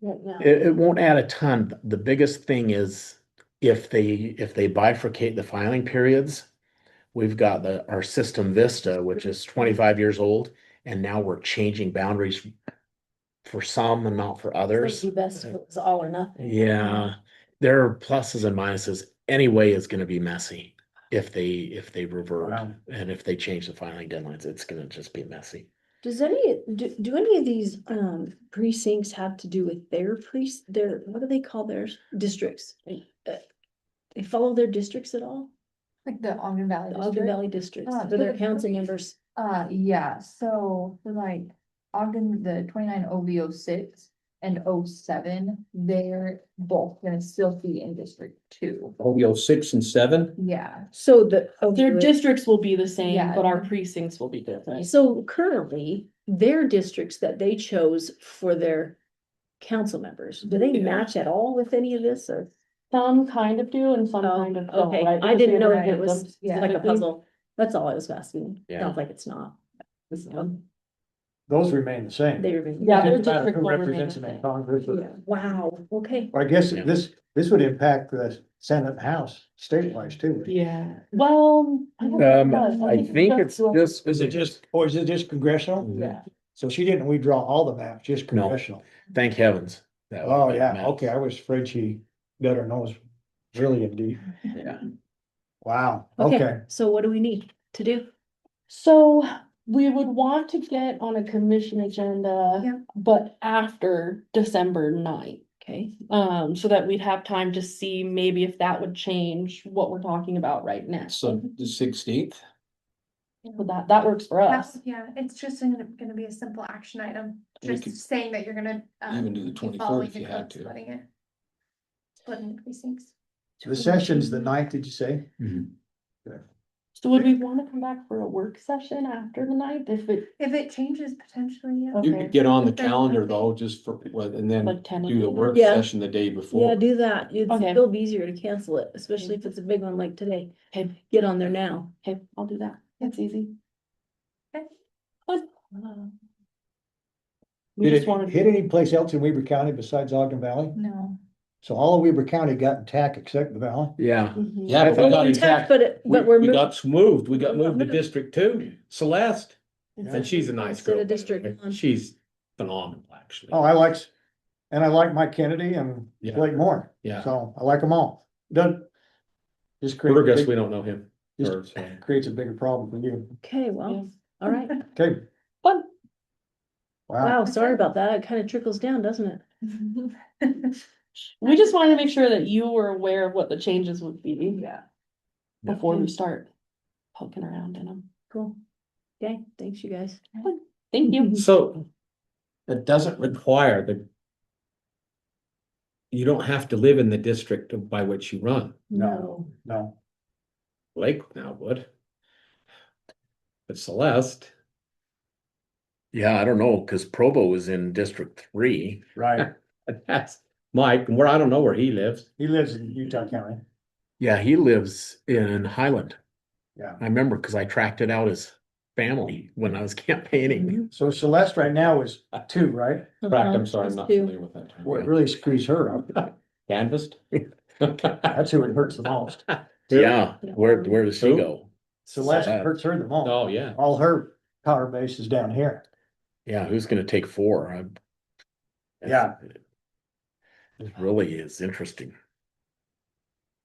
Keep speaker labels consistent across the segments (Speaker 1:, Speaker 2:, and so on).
Speaker 1: right now.
Speaker 2: It, it won't add a ton. The biggest thing is if they, if they bifurcate the filing periods, we've got the, our system Vista, which is twenty-five years old, and now we're changing boundaries for some and not for
Speaker 1: It'd
Speaker 2: others.
Speaker 1: be best if it was all or nothing.
Speaker 2: Yeah, there are pluses and minuses. Any way is gonna be messy if they, if they revert.
Speaker 3: Wow.
Speaker 2: And if they change the filing deadlines, it's gonna just be messy.
Speaker 1: Does any, do, do any of these, um, precincts have to do with their priest, their, what do they call theirs, districts? Uh, They follow their districts at all?
Speaker 4: Like the Ogden Valley
Speaker 1: The Ogden
Speaker 4: District?
Speaker 1: Valley districts,
Speaker 4: Ah,
Speaker 1: for their
Speaker 4: good.
Speaker 1: council members,
Speaker 4: Uh, yeah, so for like Ogden, the twenty-nine O V O six and O seven, they're both gonna still be in District Two.
Speaker 3: OBO six and seven?
Speaker 4: Yeah,
Speaker 1: so the. oh,
Speaker 5: Their
Speaker 1: good.
Speaker 5: districts will be the same,
Speaker 4: Yeah.
Speaker 5: but our precincts will be different.
Speaker 1: So currently, their districts that they chose for their council members, do they
Speaker 5: Yeah.
Speaker 1: match at all with any of this or?
Speaker 5: Some kind of do and some
Speaker 1: Oh,
Speaker 5: kind of don't,
Speaker 1: okay.
Speaker 5: right?
Speaker 1: I didn't know if
Speaker 5: Because they
Speaker 1: it was
Speaker 5: haven't
Speaker 4: yeah.
Speaker 1: Like a
Speaker 5: specifically.
Speaker 1: puzzle, that's all I was asking,
Speaker 2: Yeah.
Speaker 1: sounds like it's not,
Speaker 5: So,
Speaker 3: Those remain the same.
Speaker 1: they were.
Speaker 5: Yeah, they're
Speaker 3: Doesn't matter
Speaker 5: district
Speaker 3: who
Speaker 5: will remain
Speaker 3: represents
Speaker 5: the
Speaker 3: them in
Speaker 5: same.
Speaker 3: Congress, but-
Speaker 4: yeah.
Speaker 1: Wow, okay.
Speaker 3: I guess
Speaker 2: Yeah.
Speaker 3: this, this would impact the Senate and House statewide too.
Speaker 5: Yeah, well. don't
Speaker 2: Um,
Speaker 5: know. I
Speaker 2: I
Speaker 5: think
Speaker 2: think it's
Speaker 5: that's what- Oh,
Speaker 2: just.
Speaker 3: Is it just, or is it just congressional?
Speaker 5: Yeah,
Speaker 3: So she didn't redraw all the maps, just
Speaker 2: No.
Speaker 3: congressional.
Speaker 2: Thank heavens. that-
Speaker 3: Oh,
Speaker 2: that
Speaker 3: yeah,
Speaker 2: matters.
Speaker 3: okay, I was afraid she better knows really in deep.
Speaker 2: Yeah.
Speaker 3: Wow, okay.
Speaker 1: So what do we need to do?
Speaker 5: so we would want to get on a commission agenda,
Speaker 4: Yeah.
Speaker 5: but after December ninth.
Speaker 1: Okay,
Speaker 5: Um, so that we'd have time to see maybe if that would change what we're talking about right now.
Speaker 6: So the sixteenth,
Speaker 5: But that, that works for
Speaker 7: Yeah,
Speaker 5: us.
Speaker 7: Yeah, it's just gonna, gonna be a simple action item,
Speaker 6: And you
Speaker 7: just
Speaker 6: could
Speaker 7: saying that you're gonna. um,
Speaker 6: even do the
Speaker 7: be
Speaker 6: 23rd
Speaker 7: following
Speaker 6: if you
Speaker 7: it,
Speaker 6: had
Speaker 7: not
Speaker 6: to.
Speaker 7: Splitting it. Splitting precincts.
Speaker 3: The session's the ninth, did you say?
Speaker 5: So would we wanna come back for a work session after the ninth if it,
Speaker 7: If it changes potentially, yeah.
Speaker 6: you
Speaker 5: Okay.
Speaker 6: could get on the
Speaker 7: That's fine.
Speaker 6: calendar though, just for, what- and then
Speaker 5: like ten?
Speaker 6: do the work
Speaker 1: Yeah.
Speaker 6: session the day
Speaker 1: yeah,
Speaker 6: before.
Speaker 1: do that, it's
Speaker 5: Okay.
Speaker 1: still easier to cancel it, especially if it's a big one like today,
Speaker 5: Okay,
Speaker 1: get on there now.
Speaker 5: okay, I'll do that. That's easy.
Speaker 7: Okay.
Speaker 5: Good. Um, We
Speaker 3: Did
Speaker 5: just
Speaker 3: it
Speaker 5: wanted.
Speaker 3: hit any place else in Weber County besides Ogden Valley?
Speaker 4: No,
Speaker 3: So all of Weber County got intact except the valley?
Speaker 2: Yeah,
Speaker 1: Mm-hmm.
Speaker 5: Mhm.
Speaker 6: Yeah, but we got
Speaker 1: Intact,
Speaker 6: intact,
Speaker 1: But it,
Speaker 6: we,
Speaker 1: but we're
Speaker 6: we
Speaker 1: moving.
Speaker 6: got moved, we got moved to District Two, Celeste, and she's a nice
Speaker 1: Instead
Speaker 6: girl.
Speaker 1: of
Speaker 6: by the
Speaker 1: District
Speaker 6: way.
Speaker 1: one.
Speaker 6: She's phenomenal, actually.
Speaker 3: Oh, I likes, and I like Mike Kennedy and
Speaker 6: Yeah.
Speaker 3: Blake Moore,
Speaker 6: Yeah,
Speaker 3: so I like them all. Doesn't. Just creates, a
Speaker 6: Burgess, we
Speaker 3: big-
Speaker 6: don't know him.
Speaker 3: Just-
Speaker 6: or, so.
Speaker 3: creates a bigger problem for you.
Speaker 1: Okay, well, all right,
Speaker 3: Okay,
Speaker 5: Fun.
Speaker 3: wow.
Speaker 1: wow, sorry about that, it kind of trickles down, doesn't it?
Speaker 5: We just wanted to make sure that you were aware of what the changes would be
Speaker 4: yeah.
Speaker 5: before we start poking around in them.
Speaker 1: Cool. Okay, thanks you guys.
Speaker 5: Thank you.
Speaker 6: So it doesn't require the you don't have to live in the district by which you run.
Speaker 3: No. No,
Speaker 6: Lake now would. But Celeste.
Speaker 2: yeah, I don't know, cause Provo is in District Three.
Speaker 3: right.
Speaker 6: And That's Mike, and where I don't know where he lives.
Speaker 3: He lives in Utah County.
Speaker 2: Yeah, he lives in Highland.
Speaker 3: Yeah.
Speaker 2: I remember, cause I tracked it out as family when I was campaigning.
Speaker 3: So Celeste right now is two, right?
Speaker 1: Um,
Speaker 6: Correct, I'm
Speaker 1: Uh-huh.
Speaker 6: sorry, I'm
Speaker 1: Those
Speaker 6: not
Speaker 1: two.
Speaker 6: familiar with that. term.
Speaker 3: Boy, it really screws her up.
Speaker 6: Canvassed?
Speaker 3: That's who it hurts the most.
Speaker 2: Yeah, where, where does she
Speaker 6: Who?
Speaker 2: go? Uh,
Speaker 3: Celeste hurts her the most.
Speaker 6: Oh, yeah.
Speaker 3: All her power base is down here.
Speaker 2: Yeah, who's gonna take four? I'm-
Speaker 3: Yeah.
Speaker 2: It really is interesting.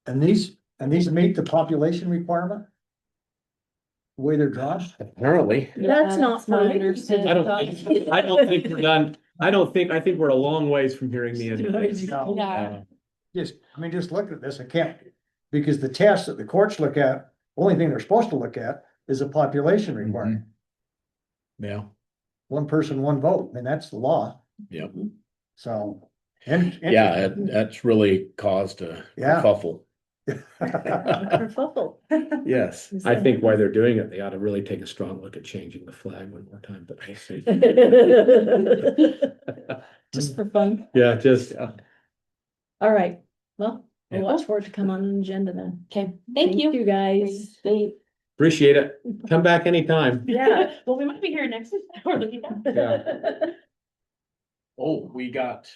Speaker 3: And these, and these meet the population requirement? The Way they're drawn?
Speaker 2: Apparently,
Speaker 1: That's not.
Speaker 5: That's my
Speaker 1: fine.
Speaker 5: understanding.
Speaker 6: I don't think, I don't think we're done. I don't think, I think we're a long ways from hearing the end of this.
Speaker 3: No.
Speaker 5: Yeah,
Speaker 3: Just, I mean, just look at this, I can't, because the test that the courts look at, only thing they're supposed to look at is a population requirement.
Speaker 2: yeah,
Speaker 3: One person, one vote, I mean, that's the law,
Speaker 2: yeah,
Speaker 3: so. and- and-
Speaker 2: yeah, that- that's really caused a
Speaker 3: Yeah.
Speaker 2: kerfuffle.
Speaker 1: Kerfuffle.
Speaker 2: Yes.
Speaker 6: I think while they're doing it, they ought to really take a strong look at changing the flag one more time, but we'll see.
Speaker 1: Just for fun.
Speaker 6: Yeah, just,
Speaker 1: All right, well, we'll
Speaker 2: Yeah.
Speaker 1: watch for it to come on an agenda then.
Speaker 5: okay, thank you.
Speaker 1: You guys.
Speaker 5: Thank-
Speaker 6: appreciate it. Come back anytime.
Speaker 1: Yeah.
Speaker 5: Well, we might be here next week.
Speaker 6: Yeah.
Speaker 2: Oh, we got